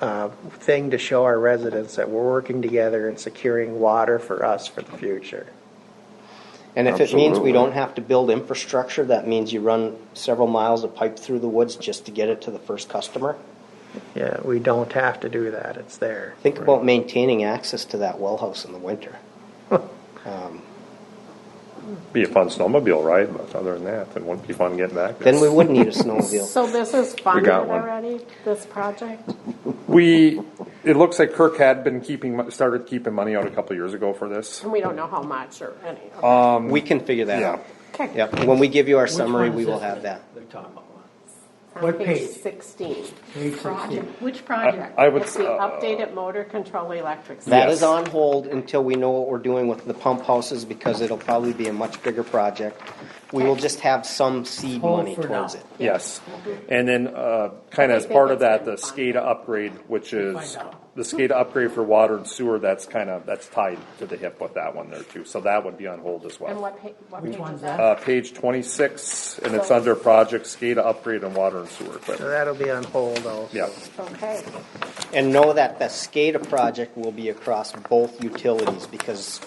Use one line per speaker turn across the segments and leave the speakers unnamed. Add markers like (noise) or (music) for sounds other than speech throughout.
uh, thing to show our residents that we're working together and securing water for us for the future.
And if it means
Absolutely.
we don't have to build infrastructure, that means you run several miles of pipe through the woods just to get it to the first customer.
Yeah, we don't have to do that. It's there.
Think about maintaining access to that well house in the winter.
Be a fun snowmobile ride, but other than that, it wouldn't be fun getting back.
Then we would
(laughs)
need a snowmobile.
So this is funded
got one.
already, this project?
We, it looks like Kirk had been keeping, mo- started keeping money out a couple years ago for this.
And we don't know how much or any.
Uh,
Um, We can figure that
Yeah.
out.
Okay.
Yep, when we give you our
Which
summary,
one
we
is
will
this
have that.
They're talking about one.
On
What page?
Sixteen.
Page sixteen.
I
Which project?
I would,
It's the
uh,
updated motor control electric.
That
Yes.
is on hold until we know what we're doing with the pump houses because it'll probably be a much bigger project. We will just have some seed
Hold
money
for
towards
now.
it.
yes. And then, uh, kind of as
think
part of
it's
that, the
been fun.
SCADA upgrade, which is
Find out.
the SCADA upgrade for water and sewer, that's kind of, that's tied to the hip with that one there too. So that would be on hold as
And
well.
what page, what
Which
page
one's
is that?
Uh, page twenty-six, and it's
So-
under project SCADA upgrade on water and sewer
So
equipment.
that'll be on hold also.
Yeah.
Okay,
And know that the SCADA project will be across both utilities because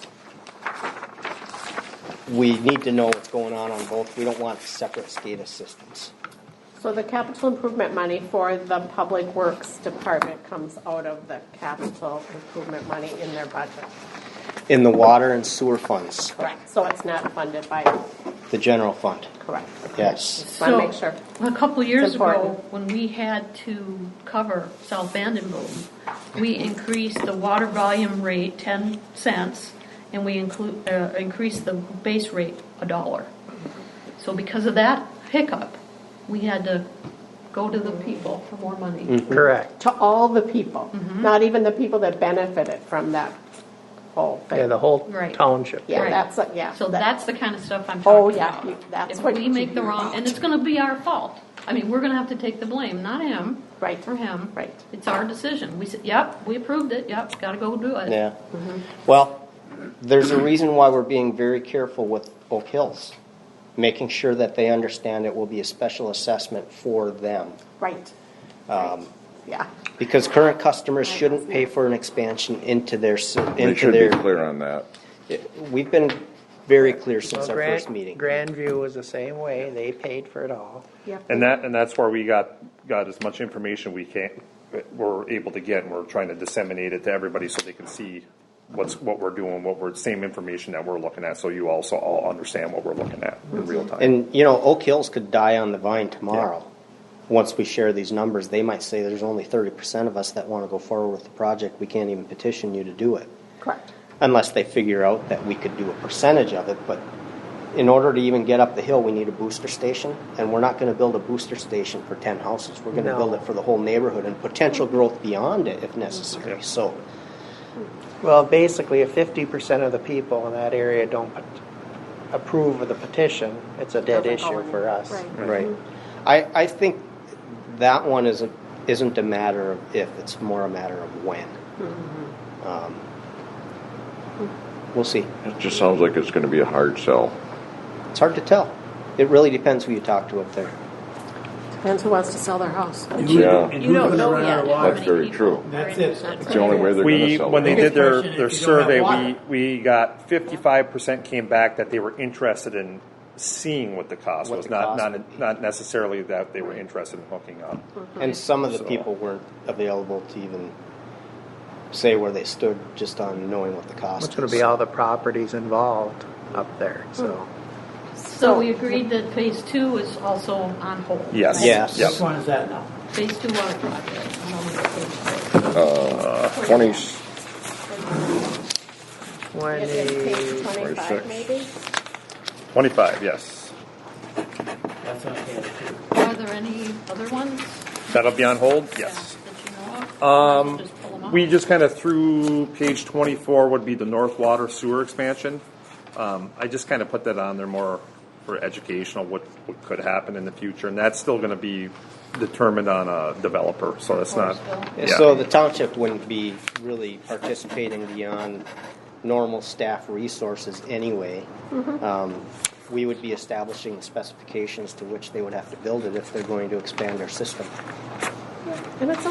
we need to know what's going on on both. We don't want separate SCADA systems.
so the capital improvement money for the Public Works Department comes out of the capital improvement money in their budget.
In the water and sewer funds,
Correct. So it's not funded by,
the general fund,
correct.
yes.
Wanna
So,
make sure.
A couple of years
It's
ago,
important.
when we had to cover South Vandenboom, we increased the water volume rate ten cents, and we include, uh, increased the base rate a dollar. So because of that hiccup, we had to go to the people for more money.
Correct.
To all the people, not even the people that benefited from that whole thing.
Yeah, the whole
Right.
township.
Yeah,
Right.
that's, a- yeah.
So
that-
that's the kind of stuff I'm
Oh,
talking
yeah,
about.
you- that's what
If we
you
make the
hear
wrong,
about.
and it's gonna be our fault. I mean, we're gonna have to take the blame, not him.
Right.
Or him.
Right.
It's our decision. We said, yep, we approved it, yep, gotta go do it.
Yeah. Well, there's a reason why we're being very careful with Oak Hills, making sure that they understand it will be a special assessment for them.
Right.
Um,
Right. Yeah.
Because current customers shouldn't pay for an expansion into their, s-
They
into
should be
their.
clear on that.
We've been very clear since
Well,
our
Grand-
first meeting.
Grandview was the same way. They paid for it all.
Yep.
And that, and that's where we got, got as much information we can, we're able to get, and we're trying to disseminate it to everybody so they can see what's, what we're doing, what we're, same information that we're looking at, so you also all understand what we're looking at in real time.
And, you know, Oak Hills could die on the vine tomorrow. Once we share these numbers, they might say there's only thirty percent of us that wanna go forward with the project. We can't even petition you to do it.
Correct.
unless they figure out that we could do a percentage of it, but in order to even get up the hill, we need a booster station, and we're not gonna build a booster station for ten houses, we're gonna
No.
build it for the whole neighborhood and potential growth beyond it if necessary, so.
Well, basically, if fifty percent of the people in that area don't p- approve of the petition, it's a dead
Doesn't go
issue for
anywhere.
us.
Right.
Right. I, I think that one isn't, isn't a matter of if, it's more a matter of when. Um, We'll see,
It just sounds like it's gonna be a hard sell.
it's hard to tell, it really depends who you talk to up there.
Depends who wants to sell their house.
Yeah.
And
You
who's
don't
gonna
know
run out
yet.
of
how
water?
That's
many
very
people
true.
are
That's
in
it.
that
It's the only way they're gonna
We,
sell it.
when they did their,
Biggest
their
question, if you
survey,
don't have
we,
water.
we got fifty-five percent came back that they were interested in seeing what the cost
What
was,
the
not,
cost
not, not necessarily that they were interested in hooking up.
And some of the
So-
people weren't available to even say where they stood just on knowing what the cost
It's gonna
is.
be all the properties involved up there, so.
So we agreed that phase two is also on hold.
Yes.
right?
Yes.
Which one is that now?
Phase two water project. I don't know what phase
Twenty,
When
It is page
the,
twenty-five, maybe?
Twenty-five, yes.
That's on page two.
two. Are there any other ones?
That'll be on hold,
yeah,
yes.
That you know of? Um,
We just kind of threw page twenty-four would be the North Water Sewer expansion. Um, I just kind of put that on there more for educational, what, what could happen in the future, and that's still gonna be determined on a developer, so that's not.
And
yeah.
So the township wouldn't be really participating beyond normal staff resources anyway. Um, We would be establishing specifications to which they would have to build it if they're going to expand their system.
And it's